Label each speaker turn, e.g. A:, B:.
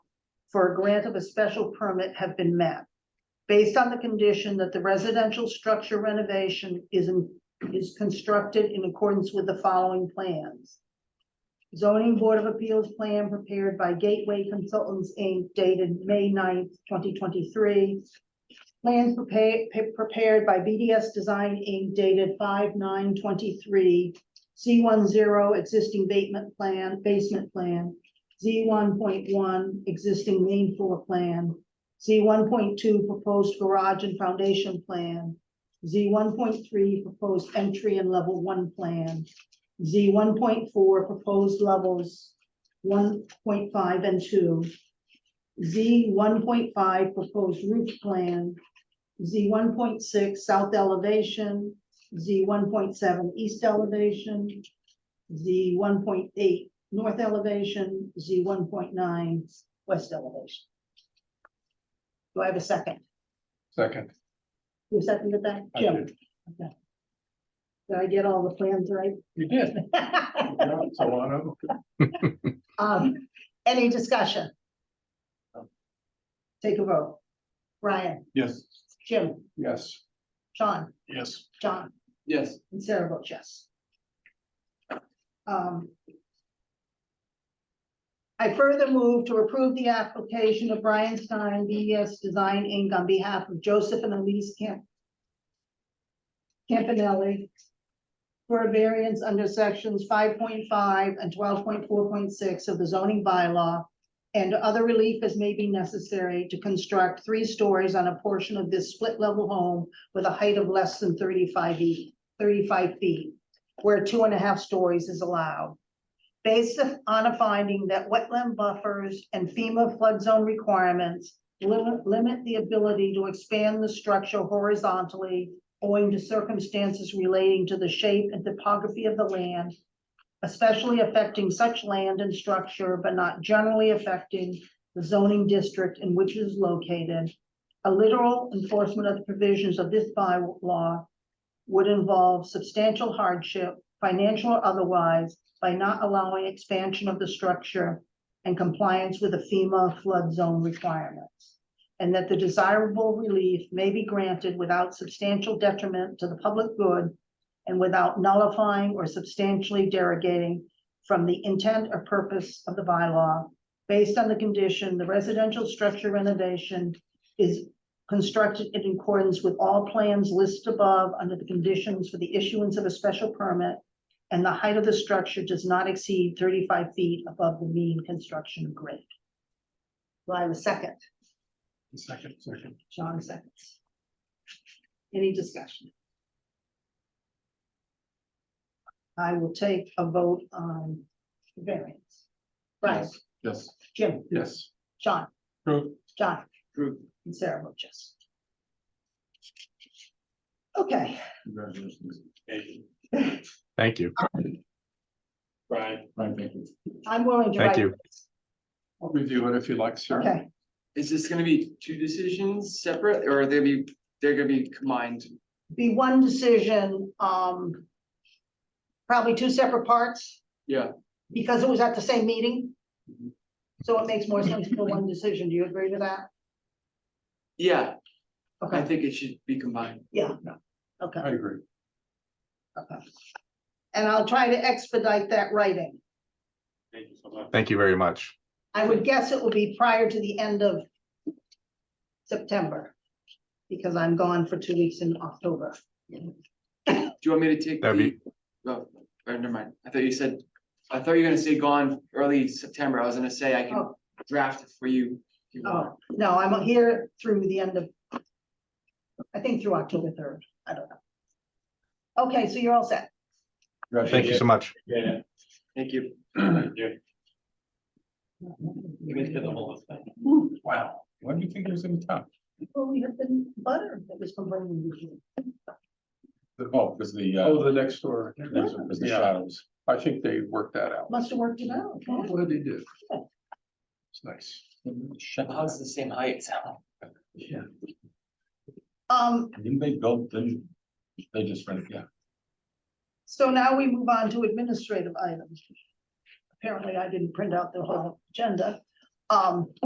A: for a grant of a special permit have been met. Based on the condition that the residential structure renovation is, in- is constructed in accordance with the following plans. Zoning Board of Appeals plan prepared by Gateway Consultants, Inc. dated May 9th, twenty twenty-three. Plans prepared, prepared by BDS Design, Inc. dated five nine twenty-three. C one zero existing basement plan, basement plan. Z one point one existing main floor plan. Z one point two proposed garage and foundation plan. Z one point three proposed entry and level one plan. Z one point four proposed levels one point five and two. Z one point five proposed roof plan. Z one point six south elevation, Z one point seven east elevation, Z one point eight north elevation, Z one point nine west elevation. Do I have a second?
B: Second.
A: Who seconded that?
B: I
A: Jim?
B: did.
A: Did I get all the plans
B: You did.
A: right?
B: Good job, Solano.
A: Um, any discussion? Take a vote. Ryan,
B: Yes.
A: Jim,
B: Yes.
A: Sean,
B: Yes.
A: John.
B: Yes.
A: And Sarah votes yes. Um, I further move to approve the application of Brian Stein, BES Design Inc. on behalf of Joseph and Elise Camp Campanelli for a variance under sections five point five and twelve point four point six of the zoning bylaw and other relief as may be necessary to construct three stories on a portion of this split-level home with a height of less than thirty-five feet thirty-five feet, where two and a half stories is allowed. Based on a finding that wetland buffers and FEMA flood zone requirements limit, limit the ability to expand the structure horizontally owing to circumstances relating to the shape and topography of the land, especially affecting such land and structure, but not generally affecting the zoning district in which it is located. A literal enforcement of the provisions of this bylaw would involve substantial hardship, financial or otherwise, by not allowing expansion of the structure and compliance with the FEMA flood zone requirements. And that the desirable relief may be granted without substantial detriment to the public good and without nullifying or substantially derogating from the intent or purpose of the bylaw based on the condition the residential structure renovation is constructed in accordance with all plans listed above under the conditions for the issuance of a special permit, and the height of the structure does not exceed thirty-five feet above the mean construction grade. Do I have a second?
B: Second, second.
A: John seconds. Any discussion? I will take a vote on the variance. Right,
B: Yes.
A: Jim,
B: Yes.
A: John,
B: True.
A: John.
B: True.
A: And Sarah votes yes. Okay,
B: Congratulations.
C: Thank you.
B: Brian. Brian, thank you.
A: I'm willing to
C: Thank
A: write.
C: you.
B: I'll review it if you like, sir.
A: Okay,
D: Is this gonna be two decisions separate, or are they be, they're gonna be combined?
A: be one decision, um. Probably two separate parts.
D: Yeah.
A: Because it was at the same meeting.
D: Mhm.
A: So it makes more sense for one decision. Do you agree with that?
D: Yeah, I
A: Okay,
D: think it should be combined.
A: yeah, okay,
B: I agree.
A: okay. And I'll try to expedite that writing.
B: Thank you so much.
C: Thank you very much.
A: I would guess it will be prior to the end of September. Because I'm gone for two weeks in October.
D: Do you want me to take
C: That'd
D: the? Oh, or never mind, I thought you said, I thought you were gonna say gone early September, I was gonna say I can
A: Oh.
D: draft it for you. if you want.
A: Oh, no, I'm here through the end of. I think through October third, I don't know. Okay, so you're all set.
C: Thank you so much.
B: Yeah.
D: Thank you.
B: Wow, what do you think was in the top?
A: Well, we have been butter that was complaining usually.
E: Oh, because the, uh,
B: Oh, the next door.
E: next one was the
B: Oh, Yeah.
E: shadows.
B: I think they worked that out.
A: Must have worked it out.
B: I'm glad they did.
A: Yeah.
B: It's nice.
D: The house is the same height, so.
B: Yeah.
A: Um,
E: Didn't they build, didn't, they just rent, yeah.
A: so now we move on to administrative items. Apparently I didn't print out the whole agenda. Um,